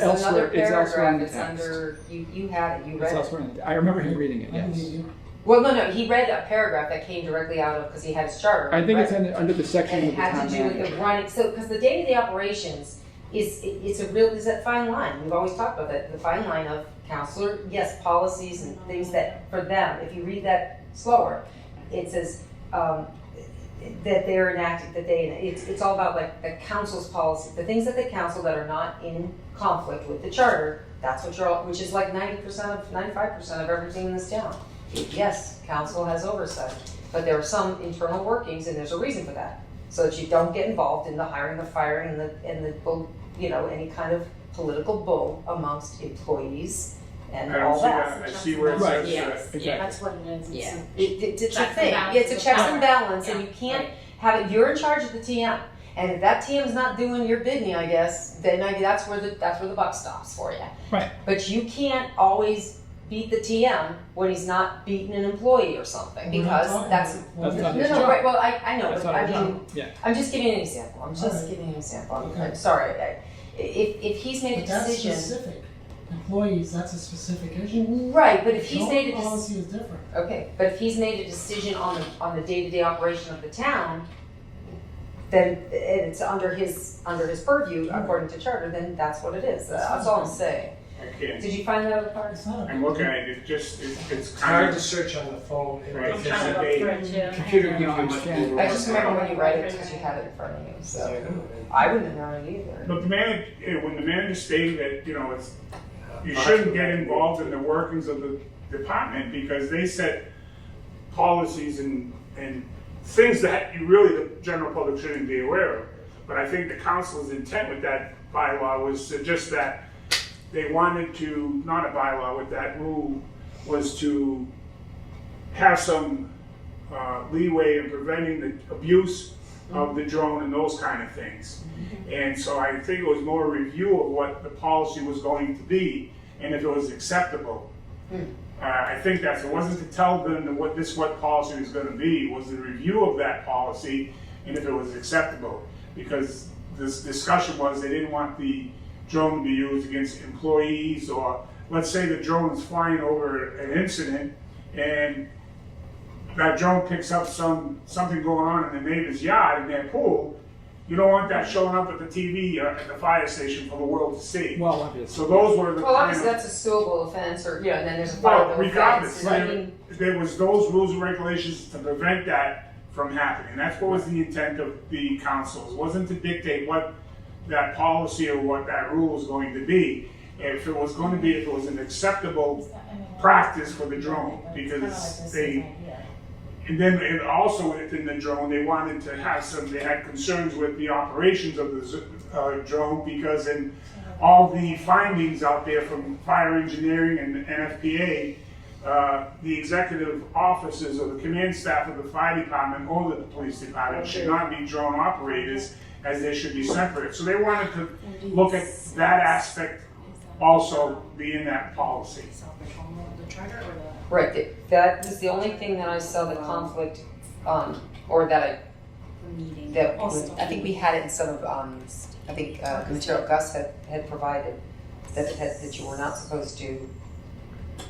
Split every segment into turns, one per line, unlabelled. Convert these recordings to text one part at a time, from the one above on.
So another
elsewhere, it's elsewhere in
paragraph,
the
it's
text.
under, you, you had it, you
It's
read it.
elsewhere in the, I remember him reading it,
Mm-hmm.
yes.
Well, no, no, he read a paragraph that came directly out of, because he had his charter.
I think
right?
it's in, under the
And
section
it
with the
had
town
to do with the
manager.
running, so, because the day-to-day operations is, it- it's a real, is that fine line, we've always talked about that, the fine line of counselor, yes, policies and things that, for them, if you read that slower, it says, um, that they're enacted, that they, it's, it's all about like the council's policy, the things that the council that are not in conflict with the charter, that's what you're, all- which is like ninety percent of, ninety-five percent of everything in this town. Yes, council has oversight, but there are some internal workings and there's a reason for that so that you don't get involved in the hiring, the firing, and the, and the, bull- you know, any kind of political bull amongst employees and
I don't
all
see
that.
that. I see where it
Right.
says that.
Yes, yeah,
Exactly.
that's what it is. It's
Yeah.
a-
It, it- it's a
Checks and
thing, Yeah, it's a
balances of
checks and
power.
balance, and
Yeah,
you can't have it, you're in charge of the TM. And if that TM's not doing your bidding, I guess, then I, that's where the, that's where the buck stops for you.
Right.
But you can't always beat the TM when he's not beating an employee or something,
We're not
because
talking
that's,
That's
no,
not his
no,
job.
right, well, I, I know,
That's
but
not
I
his
mean,
job, yeah.
I'm just giving an example, I'm just
Alright.
giving an example, I'm,
Okay.
I'm sorry, I, i- if, if he's made a
But that's
decision.
specific. Employees, that's a specific issue.
Right, but if he's
Joint
made a, dec-
Policy is different.
okay, but if he's made a decision on the, on the day-to-day operation of the town, then i- it's under his, under his purview, according to charter, then that's what it is, that's all I'm saying.
I can't.
Did you find that other part?
It's not a.
I'm looking at it, it just, it- it's
It's hard
kind
to
of,
search on the phone. and
Right.
I'm
It's
it's
trying
a
to
date.
look for it too.
Computer gives you
No, I
much
understand.
more.
I just remember when you read it, because you had it in front of you, so, I wouldn't have known it either.
but the man, eh, when the manager stated that, you know, it's, you shouldn't get involved in the workings of the department because they set policies and, and things that you really, the general public shouldn't be aware of. But I think the council's intent with that bylaw was to just that they wanted to, not a bylaw, with that rule, was to have some uh, leeway in preventing the abuse of the drone and those kind of things. And so I think it was more a review of what the policy was going to be and if it was acceptable. Uh, I think that's, it wasn't to tell them that what this, what policy was gonna be, it was a review of that policy and if it was acceptable. Because this discussion was they didn't want the drone to be used against employees or, let's say the drone's flying over an incident and that drone picks up some, something going on in the neighbor's yard in their pool, you don't want that showing up at the TV or at the fire station for the world to see.
Well, obviously.
So those were the.
Well, obviously,
kind of-
that's a suable offense, or, you know, and then there's a
Well,
five
regardless,
offense, I
there,
mean.
there was those rules and regulations to prevent that from happening. That's what was the intent of the councils, wasn't to dictate what that policy or what that rule was going to be. If it was going to be, if it was an acceptable practice for the drone, because they And then, and also within the drone, they wanted to have some, they had concerns with the operations of the z- uh, drone because in all the findings out there from fire engineering and the NFPA, uh, the executive officers or the command staff of the fire department or the police department should not be drone operators as they should be separate. So they wanted to look at that aspect also be in that policy.
The charter or the?
Right, that- that was the only thing that I saw the conflict, um, or that I,
Meeting.
that, was- I think we had it in some of, um, I think, uh, the material Gus had, had provided, that it had, that you were not supposed to,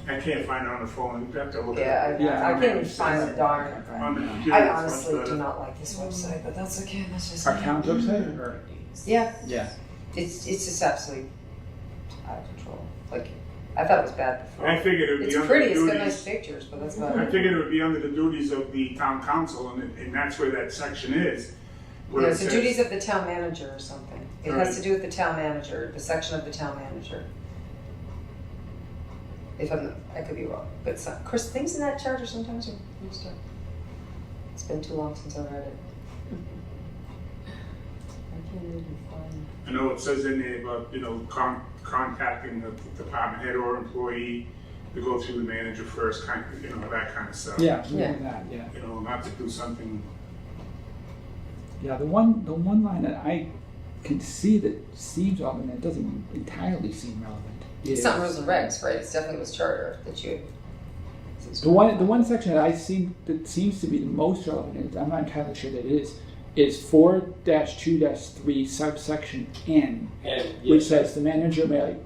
I can't find it on the phone, you have to look
yeah,
at it.
Yeah,
I, I
mean,
couldn't find the darn.
on the computer,
I
it's much
honestly
better.
do not like this website, Mm, but that's okay, that's just.
Our town's upset, or,
Yeah,
yeah.
it's, it's just absolutely out of control, like, I thought it was bad before.
I figured it would be
It's
under
pretty,
the
it's got nice
duties.
pictures, but that's about
I
it.
figured it would be under the duties of the town council, and, and that's where that section is. where
Yeah,
it
it's the
says-
duties of the town manager or something. It has to do with the town manager, the section of the town manager. If I'm, I could be wrong, but some, Chris, things in that charter sometimes are mixed up. It's been too long since I read it. I can't even find.
I know it says in there about, you know, con- contacting the department head or employee to go through the manager first, kind of, you know, that kind of stuff.
Yeah, we
Yeah.
did that, yeah.
You know, not to do something,
Yeah, the one, the one line that I can see that seems off and it doesn't entirely seem relevant.
It's
is-
not rules and regs, right? It's definitely was charter that you.
The one, the one section that I seem, that seems to be the most relevant, and I'm not entirely sure that it is, is four dash two dash three subsection N,
And, yeah,
which says the manager may